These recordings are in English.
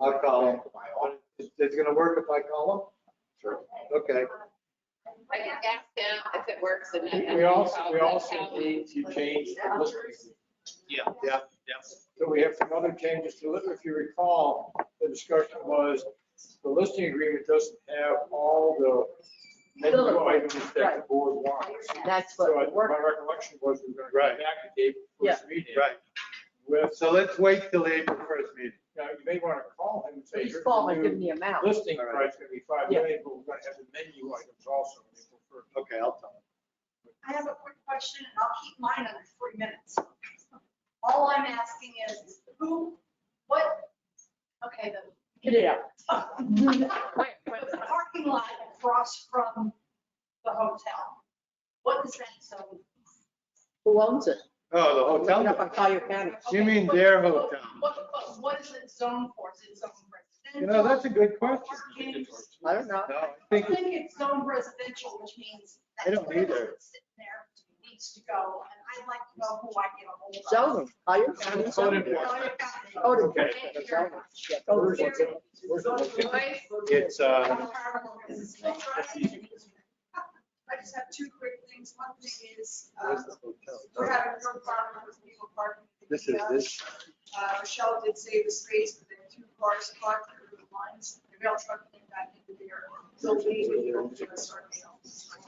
I'll call him. It's it's gonna work if I call Sure. him? Okay. I can ask him if it works and then. We also, we also need to change the list. Yeah. Yeah. So we have some other changes to it. If you recall, the discussion was the listing agreement doesn't have all the menu items that the board wants. That's So what I- we're, my recollection was we we're going to Right. go back to Dave first meeting. Right. With, So let's wait till the April first meeting. now you may want to call him and say. he's here's the falling, new give me amount. Listing All right. price is going to be five Yeah. million, but we're going to have the menu items also. when they go first. Okay, I'll tell I have a quick question, and I'll keep mine under three minutes. All I'm asking is, who, what, okay, Get it out. the, the parking lot across from the hotel, what is that zone? Who owns it? him. Oh, the Look it up hotel. on Collier County. You Okay, mean what- their what- hotel? What, what- what is it zoned for? Is it zoned You know, residential? that's a good question. Parking? I don't know. No, I I think, think it's zoned residential, which means I that don't trailer either. that's sitting there needs to go, and I'd like to know who I get a hold of. Zone them. Collier County. Code zone them. enforcement. Code Oh, Okay. enforcement. Thank you zone very them. much. Yeah, code Where's enforcement. the- where's the location? Royce? it's, uh, I just have two quick things. One thing is, uh, where's the hotel? we're having no problem with people parking. This is this. Uh, Michelle did save the space, but there were two cars parked through the lines, the rail truck came back into there. So we would go to a certain.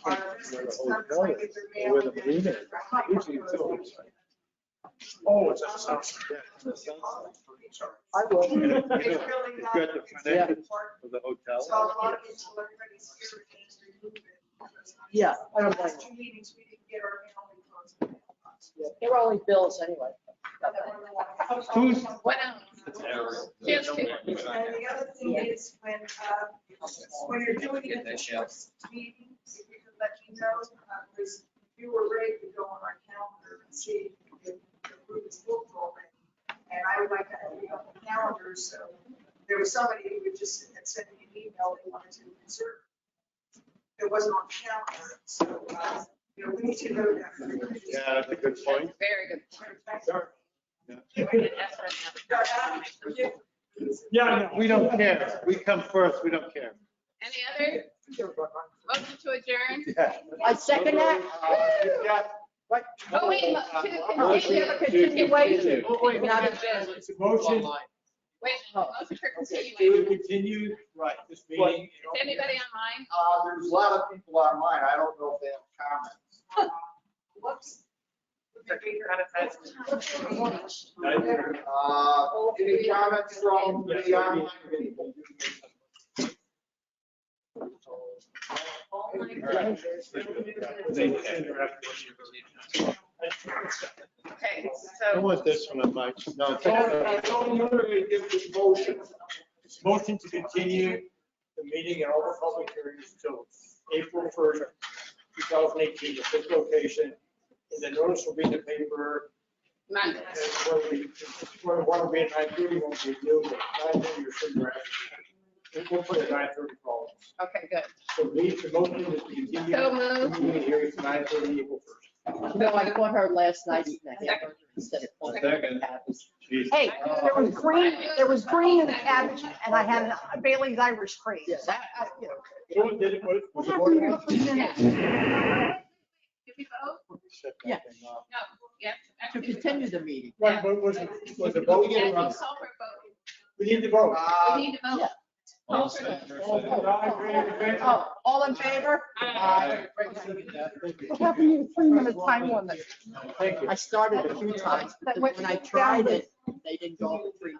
Our residents come to get their mail Where the and marina is. their hot Usually it's dogs. always like- Oh, it's outside. Yeah, it's the sunset. I will. It's You know, really It's not. got the front entrance park. of the So a hotel. lot of people are pretty scared to just remove it. Yeah, I don't blame Last two meetings, we didn't get our mail in close. you. They're only bills anyway. Who's- "Oh, What else? Yes. And the other thing is when, uh, when you're doing it, Get that meetings, shell. if you could let me know, uh, there's fewer rate to go on our calendar and see if the group is booked already. And I would like to open up the calendar, so there was somebody who would just send me an email, they wanted to reserve. It wasn't on the calendar, so, uh, you know, we need to know that. Yeah, that's a good point. Very good. uh, Yeah, We don't care. We come first. We don't care. Any other? Motion to adjourn? Yeah. I second that. You've got- Oh, wait, Uh, to We continue. have a continuation. Oh, wait, Not wait, a- It's a motion. Wait, Oh. motion for It continuing. would continue, right, this What? meeting. Is anybody online? Uh, there's a lot of people online. I don't know if they have comments. Whoops. Uh, any comments from the online people? Oh, my Right. Okay, I so want this one on my, no, it's okay. Tony, Tony, you're gonna give this motion, motion to continue the meeting and all the public hearings till April first, two thousand eighteen, at this location. And the notice will be in the paper, not and where we, where one will be at nine thirty, one will be new, but nine thirty or somewhere. And we'll put it nine thirty call. Okay, good. So we, the motion is to continue. So moved. the meeting hearing to nine thirty, April first. No, I caught her last night eating a hamburger instead of. Second. Jeez. Hey, there was Oh. green, there was green in the cabbage, and I had a Bailey's Irish cream. Yeah, that- I- you know, So it did, was, What was happened to your the three minutes? Did we vote? Shut that Yeah. thing off. No, yes. To continue the meeting. Right, but was, was the vote? I think Culver voted. We need to vote. We need to vote. Yeah. Oh, all in favor? Aye. What happened to your three minute time limit? Thank you. I started a few times, but when I tried it, they didn't go over three